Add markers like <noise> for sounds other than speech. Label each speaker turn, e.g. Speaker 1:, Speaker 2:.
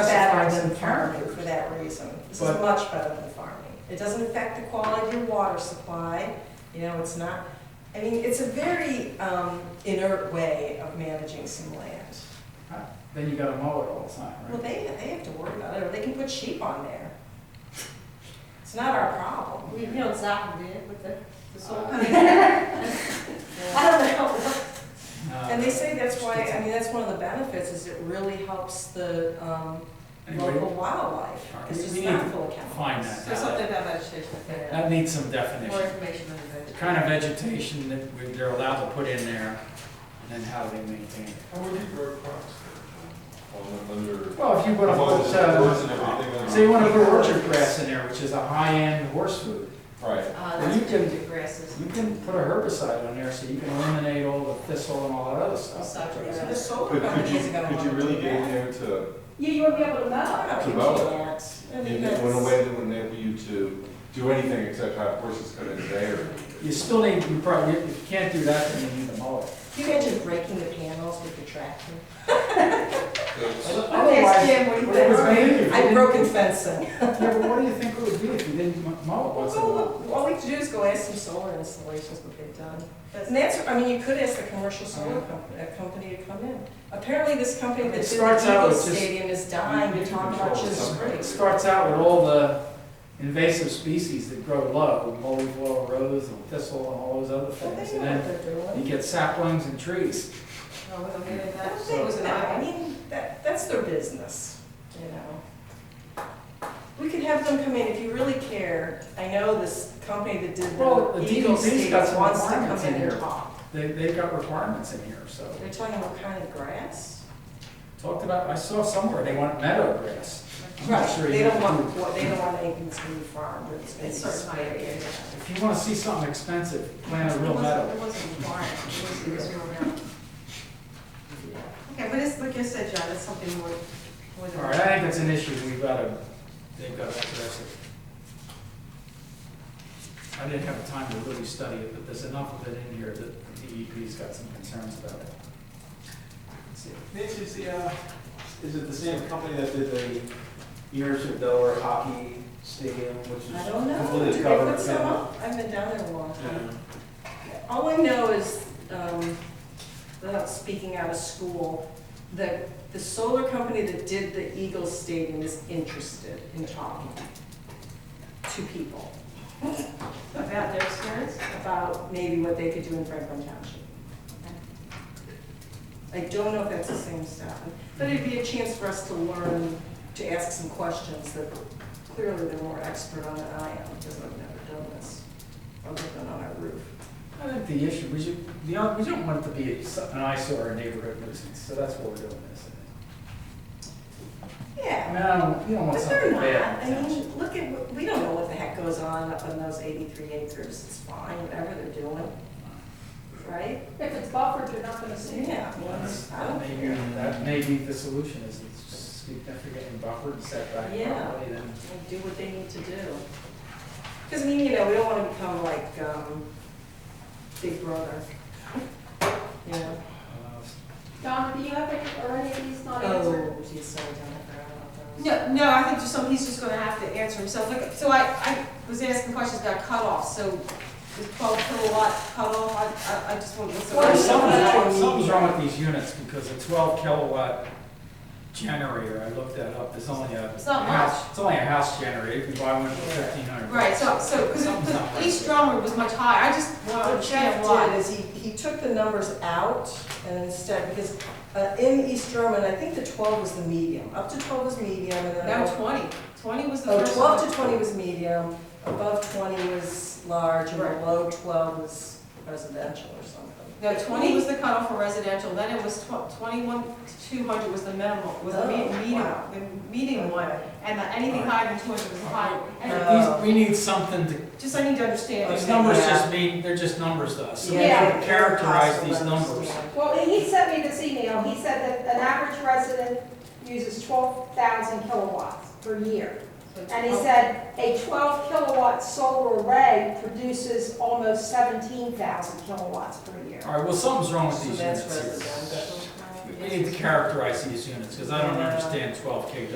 Speaker 1: better
Speaker 2: specifies
Speaker 1: than
Speaker 2: in farming.
Speaker 1: farming for that reason. This is
Speaker 2: But-
Speaker 1: much better than farming. It doesn't affect the quality of water supply, you know, it's not, I mean, it's a very um, inert way of managing some land.
Speaker 2: Then you gotta mow it all the time,
Speaker 1: Well,
Speaker 2: right?
Speaker 1: they, they have to worry about it, or they can put sheep on there. It's not our problem.
Speaker 3: You know, Zach did with the, the solar.
Speaker 1: I mean,
Speaker 3: Uh, <laughs> I don't know.
Speaker 2: <laughs> Uh,
Speaker 1: And they say that's why, I mean, that's one of the benefits, is it really helps the um,
Speaker 2: Anyway,
Speaker 1: local wildlife.
Speaker 2: All right,
Speaker 1: It's just
Speaker 2: we
Speaker 1: not
Speaker 2: need
Speaker 1: full of
Speaker 2: find
Speaker 1: chemicals.
Speaker 2: that.
Speaker 3: So something about vegetation,
Speaker 2: that needs some
Speaker 3: more
Speaker 2: definition.
Speaker 3: information on the
Speaker 2: The
Speaker 3: vegetation.
Speaker 2: kind of vegetation that we- they're allowed to put in there and then how they maintain it.
Speaker 4: How would you grow crops?
Speaker 5: On under.
Speaker 2: Well, if you wanna
Speaker 5: Well,
Speaker 2: put, uh,
Speaker 5: birds and everything on-
Speaker 2: say you wanna put orchard grass in there, which is a high-end horse food.
Speaker 5: Right,
Speaker 3: Uh,
Speaker 2: Well, you
Speaker 3: that's
Speaker 2: can-
Speaker 3: different grasses.
Speaker 2: You can put a herbicide on there so you can eliminate all the thistle and all that other stuff.
Speaker 3: Suck it
Speaker 1: So
Speaker 3: up.
Speaker 1: The solar
Speaker 5: but could you,
Speaker 1: companies are gonna
Speaker 5: could you
Speaker 1: wanna
Speaker 5: really
Speaker 1: do
Speaker 5: get in
Speaker 1: that.
Speaker 5: there to,
Speaker 1: Yeah, you won't be able to know.
Speaker 5: To
Speaker 1: You
Speaker 5: mow it.
Speaker 1: can't. I mean,
Speaker 5: in in a
Speaker 1: that's-
Speaker 5: way that would enable you to do anything except have horses cut in there?
Speaker 2: You still need, you probably, if you can't do that, then you need to mow it.
Speaker 1: Can you imagine breaking the panels with your tractor?
Speaker 2: Otherwise,
Speaker 1: Jim what do you
Speaker 2: what it would
Speaker 1: think?
Speaker 2: be if you
Speaker 1: I've
Speaker 2: didn't-
Speaker 1: broken fencing.
Speaker 2: Yeah, but what do you think it would be if you didn't m- mow it
Speaker 1: Well,
Speaker 2: once in a
Speaker 1: go
Speaker 2: while?
Speaker 1: look. all we have to do is go ask some solar installations what they've done. And that's, I mean, you could ask the commercial solar comp- uh, company to come in. Apparently, this company
Speaker 2: It
Speaker 1: that did
Speaker 2: starts
Speaker 1: the
Speaker 2: out with
Speaker 1: Eagles
Speaker 2: just-
Speaker 1: Stadium is dying
Speaker 5: you
Speaker 1: to
Speaker 5: can
Speaker 1: talk about
Speaker 5: control
Speaker 1: just
Speaker 5: something.
Speaker 2: It
Speaker 1: springs.
Speaker 2: starts out with all the invasive species that grow low, mully laurel rose and thistle and all those other
Speaker 1: Well,
Speaker 2: things.
Speaker 1: they
Speaker 2: And
Speaker 1: know what
Speaker 2: then
Speaker 1: they're doing.
Speaker 2: you get saplings and trees.
Speaker 3: Oh, we don't get into
Speaker 1: I
Speaker 3: that.
Speaker 1: don't think
Speaker 3: It was an
Speaker 1: that- I
Speaker 3: eye.
Speaker 1: mean, that, that's their business, you know. We could have them come in if you really care. I know this company that did
Speaker 2: Well, the
Speaker 1: the Eagles
Speaker 2: DEP's
Speaker 1: Stadium
Speaker 2: got some
Speaker 1: wants to
Speaker 2: requirements
Speaker 1: come in
Speaker 2: in
Speaker 1: and
Speaker 2: here.
Speaker 1: talk.
Speaker 2: They, they've got requirements in here, so.
Speaker 1: They're talking what kind of grass?
Speaker 2: Talked about, I saw somewhere, they want meadow grass. I'm not sure
Speaker 1: They
Speaker 2: you
Speaker 1: don't
Speaker 2: can do-
Speaker 1: want, well, they don't want anything to be farmed, it's,
Speaker 3: It's
Speaker 1: it's.
Speaker 3: sort of my area.
Speaker 2: If you wanna see something expensive, plant a
Speaker 3: It
Speaker 2: real
Speaker 3: wasn't-
Speaker 2: meadow.
Speaker 3: It wasn't required, it was, it was real metal. Okay, but it's, like you said, John, it's something more, more than.
Speaker 2: All right, I think it's an issue we've gotta, they've gotta address it. I didn't have time to really study it, but there's enough of it in here that the DEP's got some concerns about it. Let's see.
Speaker 4: Nancy, is the, uh, is it the same company that did the University of Delaware hockey stadium, which is
Speaker 1: I don't know,
Speaker 4: completely
Speaker 1: did they
Speaker 4: covered?
Speaker 1: put
Speaker 4: in-
Speaker 1: some up? I've been down there a long time.
Speaker 4: Yeah.
Speaker 1: All I know is, um, without speaking out of school, that the solar company that did the Eagles Stadium is interested in talking to people
Speaker 3: About their experience?
Speaker 1: about maybe what they could do in Franklin Township. I don't know if that's the same stuff, but it'd be a chance for us to learn, to ask some questions that clearly they're more expert on than I am, because I've never done this, other than on our roof.
Speaker 2: I think the issue, we should, the, oth- we don't want it to be an eyesore or a neighborhood nuisance, so that's what we're doing this.
Speaker 1: Yeah.
Speaker 2: I mean, I don't, you don't want
Speaker 1: But they're
Speaker 2: something
Speaker 1: not,
Speaker 2: bad.
Speaker 1: I
Speaker 2: in the township.
Speaker 1: mean, look at, what- we don't know what the heck goes on up on those eighty-three acres, it's fine, whatever they're doing, right?
Speaker 6: If it's buffered, you're not gonna see it.
Speaker 1: Yeah, well,
Speaker 2: That's-
Speaker 1: it's- I
Speaker 2: That
Speaker 1: don't
Speaker 2: may be,
Speaker 1: care.
Speaker 2: that may be the solution, is it's just significant and buffered and set back
Speaker 1: Yeah.
Speaker 2: properly, then
Speaker 1: They Do what they need to do. Because, I mean, you know, we don't wanna become like, um, Big Brother. You know?
Speaker 2: uh,
Speaker 6: Donna, do you have any, or any of these not answered?
Speaker 1: Oh, geez, sorry, Jennifer, I don't know.
Speaker 3: No, no, I think just some, he's just gonna have to answer himself. Like, so I, I was asking questions, got cut off, so is twelve kilowatt cut off? I, I, I just want to.
Speaker 2: Well,
Speaker 1: Well,
Speaker 2: something's wrong,
Speaker 1: yeah.
Speaker 2: something's wrong with these units, because a twelve kilowatt generator, I looked that up, it's only a.
Speaker 3: It's not
Speaker 2: house- It's only a house generator, you can buy one for
Speaker 1: Yeah.
Speaker 2: fifteen hundred.
Speaker 3: Right, so, so, because
Speaker 2: Something's not right.
Speaker 3: each drummer was much higher, I just
Speaker 1: What
Speaker 3: wanted to
Speaker 1: Jeff
Speaker 3: check
Speaker 1: did
Speaker 3: why.
Speaker 1: is he, he took the numbers out and instead, because uh, in East Drummond, I think the twelve was the medium, up to twelve was medium and then.
Speaker 3: No, twenty. Twenty was the
Speaker 1: Oh,
Speaker 3: first.
Speaker 1: 12 to 20 was medium, above 20 was large, and
Speaker 3: Right.
Speaker 1: below 12 was residential or something.
Speaker 3: No, twenty was the cutoff for residential, then it was tw- twenty-one to two hundred was the minimal, was the me-
Speaker 1: Oh,
Speaker 3: medium,
Speaker 1: wow.
Speaker 3: the medium one. And the- anything higher than two hundred was high.
Speaker 2: These,
Speaker 3: And
Speaker 2: we need something to,
Speaker 3: just, I need to understand.
Speaker 2: these
Speaker 3: it.
Speaker 2: numbers
Speaker 1: Yeah.
Speaker 2: just mean, they're just numbers to us, so we
Speaker 6: Yeah.
Speaker 2: can characterize these numbers.
Speaker 6: Well, he sent me this email, he said that an average resident uses twelve thousand kilowatts per year. And
Speaker 3: Oh.
Speaker 6: he said a twelve kilowatt solar array produces almost seventeen thousand kilowatts per year.
Speaker 2: All right, well, something's wrong with
Speaker 1: So
Speaker 2: these
Speaker 1: that's
Speaker 2: units here.
Speaker 1: residential.
Speaker 2: We need to characterize these units, because I don't
Speaker 1: Yeah.
Speaker 2: understand twelve k